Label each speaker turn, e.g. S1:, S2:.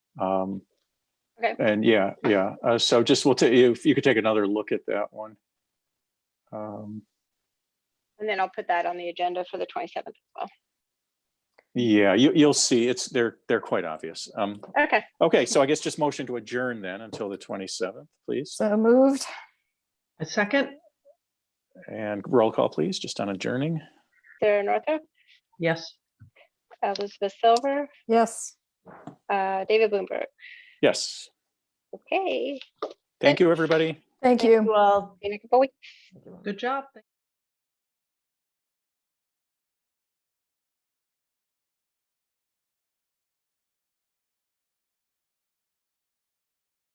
S1: Um,
S2: Okay.
S1: And yeah, yeah, uh, so just we'll take, if you could take another look at that one. Um,
S2: And then I'll put that on the agenda for the twenty-seventh as well.
S1: Yeah, you, you'll see, it's, they're, they're quite obvious. Um,
S2: Okay,
S1: okay, so I guess just motion to adjourn then until the twenty-seventh, please.
S3: So moved.
S4: A second?
S1: And roll call, please, just on adjourning.
S2: Sarah Northrop,
S4: Yes.
S2: Elizabeth Silver,
S3: Yes.
S2: uh, David Bloomberg.
S1: Yes,
S2: Okay,
S1: thank you, everybody.
S3: Thank you.
S2: in a couple weeks.
S4: Good job.